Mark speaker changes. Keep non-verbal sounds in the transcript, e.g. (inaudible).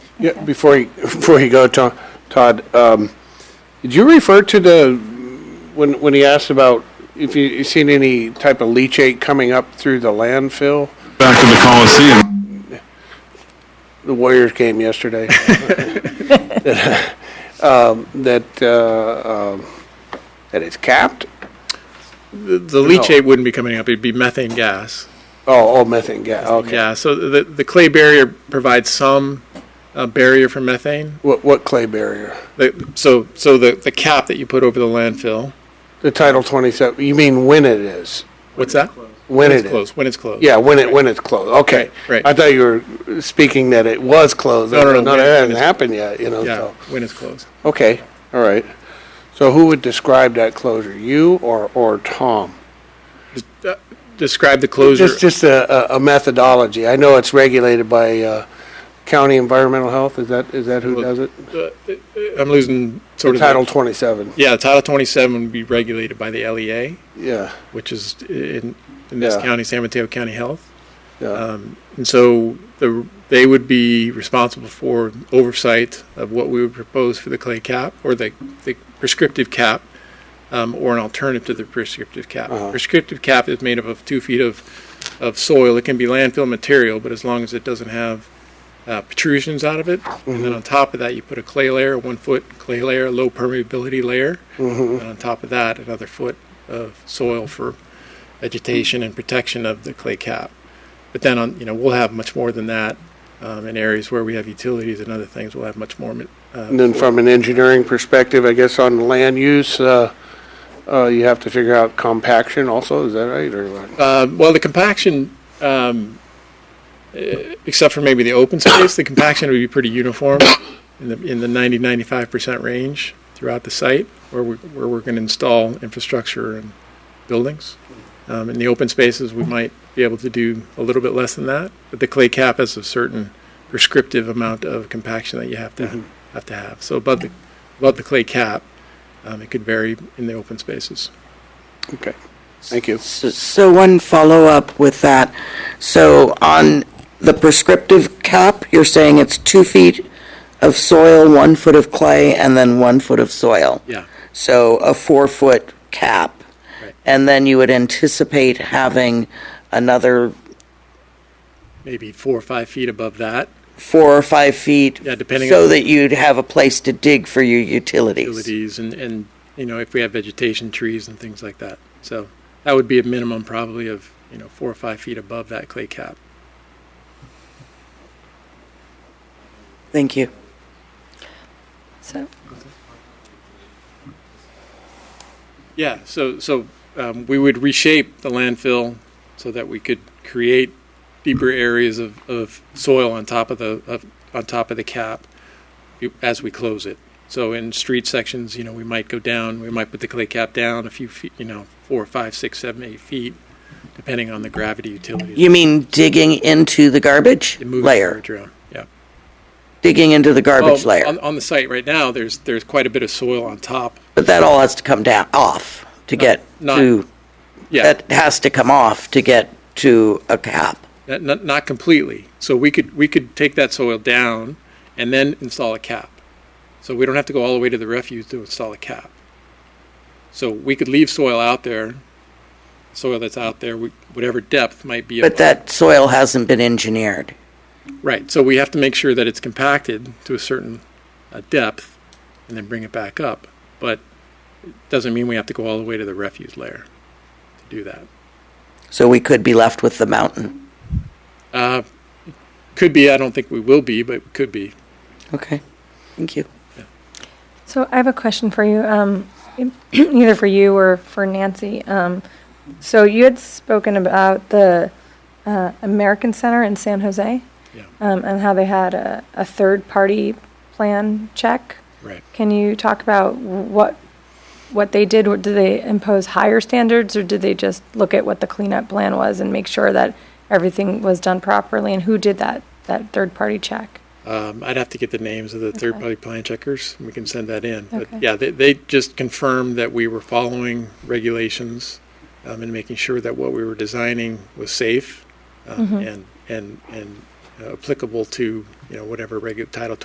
Speaker 1: Yeah, before you, (laughs) before you go, To- Todd, um, did you refer to the, when, when he asked about if you, you seen any type of leachate coming up through the landfill?
Speaker 2: Back to the Coliseum.
Speaker 1: The Warriors game yesterday. (laughs) Um, that, uh, um, that it's capped?
Speaker 3: The, the leachate wouldn't be coming up, it'd be methane gas.
Speaker 1: Oh, oh, methane gas, okay.
Speaker 3: Yeah, so the, the clay barrier provides some uh, barrier for methane.
Speaker 1: What, what clay barrier?
Speaker 3: The- So, so the, the cap that you put over the landfill,
Speaker 1: The Title 27, you mean when it is?
Speaker 3: what's that?
Speaker 1: When it
Speaker 3: it's
Speaker 1: is?
Speaker 3: closed. When it's closed.
Speaker 1: Yeah, when it, when it's closed, okay.
Speaker 3: Right, right.
Speaker 1: I thought you were speaking that it was closed.
Speaker 3: No, no, no,
Speaker 1: No,
Speaker 3: when-
Speaker 1: that
Speaker 3: when
Speaker 1: hasn't
Speaker 3: it's-
Speaker 1: happened yet, you know,
Speaker 3: Yeah,
Speaker 1: so.
Speaker 3: when it's closed.
Speaker 1: Okay, all right. So who would describe that closure, you or, or Tom?
Speaker 3: Describe the closure.
Speaker 1: Just, just a, a- a methodology. I know it's regulated by, uh, county environmental health, is that, is that who
Speaker 3: Well,
Speaker 1: does it?
Speaker 3: I'm losing sort of. the-
Speaker 1: Title twenty-seven,
Speaker 3: Yeah, Title 27 would be regulated by the LEA,
Speaker 1: yeah,
Speaker 3: which is in, in this
Speaker 1: Yeah.
Speaker 3: county, San Mateo County Health.
Speaker 1: yeah,
Speaker 3: Um, And so the, they would be responsible for oversight of what we would propose for the clay cap or the, the prescriptive cap um, or an alternative to the prescriptive cap.
Speaker 1: Uh-huh.
Speaker 3: Prescriptive cap is made up of two feet of, of soil. It can be landfill material, but as long as it doesn't have uh, protrusions out of it.
Speaker 1: Mm-hmm,
Speaker 3: And then on top of that, you put a clay layer, one foot clay layer, low permeability layer.
Speaker 1: mm-hmm.
Speaker 3: And on top of that, another foot of soil for vegetation and protection of the clay cap. But then on, you know, we'll have much more than that um, in areas where we have utilities and other things. We'll have much more. ma- Uh,
Speaker 1: And then from an engineering perspective, I guess on land use, uh, uh, you have to figure out compaction also, is that right, or what?
Speaker 3: uh, well, the compaction, um, eh, except for maybe the open space, the compaction would be pretty uniform in the in the 90 95 percent range throughout the site where we where we're going to install infrastructure and buildings. Um, in the open spaces, we might be able to do a little bit less than that, but the clay cap has a certain prescriptive amount of compaction that you have to have to have. So above the above the clay cap, um, it could vary in the open spaces.
Speaker 1: Okay, thank you.
Speaker 4: So- So one follow-up with that. So on the prescriptive cap, you're saying it's two feet of soil, one foot of clay, and then one foot of soil.
Speaker 3: Yeah.
Speaker 4: So a four-foot cap.
Speaker 3: Right.
Speaker 4: And then you would anticipate having another
Speaker 3: maybe four or five feet above that.
Speaker 4: four or five feet.
Speaker 3: Yeah, depending
Speaker 4: So
Speaker 3: on-
Speaker 4: that you'd have a place to dig for your utilities.
Speaker 3: Utilities and, and, you know, if we have vegetation, trees and things like that. So that would be a minimum probably of, you know, four or five feet above that clay cap.
Speaker 4: Thank you.
Speaker 5: So,
Speaker 3: Yeah, so, so um, we would reshape the landfill so that we could create deeper areas of, of soil on top of the, of, on top of the cap as we close it. So in street sections, you know, we might go down, we might put the clay cap down a few feet, you know, four, five, six, seven, eight feet, depending on the gravity utilities.
Speaker 4: You mean digging into the garbage
Speaker 3: It moves
Speaker 4: layer?
Speaker 3: garbage around, Yeah.
Speaker 4: Digging into the garbage
Speaker 3: Oh,
Speaker 4: layer?
Speaker 3: On, on the site right now, there's, there's quite a bit of soil on top.
Speaker 4: But that all has to come down, off to get
Speaker 3: not-
Speaker 4: to,
Speaker 3: Yeah,
Speaker 4: that has to come off to get to a cap.
Speaker 3: not- not, not completely. So we could, we could take that soil down and then install a cap. So we don't have to go all the way to the refuse to install a cap. So we could leave soil out there, soil that's out there, we- whatever depth might be.
Speaker 4: But
Speaker 3: above-
Speaker 4: that soil hasn't been engineered.
Speaker 3: Right, so we have to make sure that it's compacted to a certain uh, depth and then bring it back up. But it doesn't mean we have to go all the way to the refuse layer to do that.
Speaker 4: So we could be left with the mountain.
Speaker 3: Uh, Could be, I don't think we will be, but could be.
Speaker 4: Okay, thank you.
Speaker 5: so I have a question for you, um, (clears throat) either for you or for Nancy. Um, so you had spoken about the uh, American Center in San Jose
Speaker 3: Yeah,
Speaker 5: um, and how they had a, a third party plan check.
Speaker 3: right.
Speaker 5: Can you talk about what what they did? Did they impose higher standards, or did they just look at what the cleanup plan was and make sure that everything was done properly? And who did that that third party check?
Speaker 3: Um, I'd have to get the names of the third-party plan checkers. We can send that in.
Speaker 5: Okay.
Speaker 3: But yeah, they, they just confirmed that we were following regulations um, and making sure that what we were designing was safe um, and, and, and uh, applicable to, you know, whatever regu- Title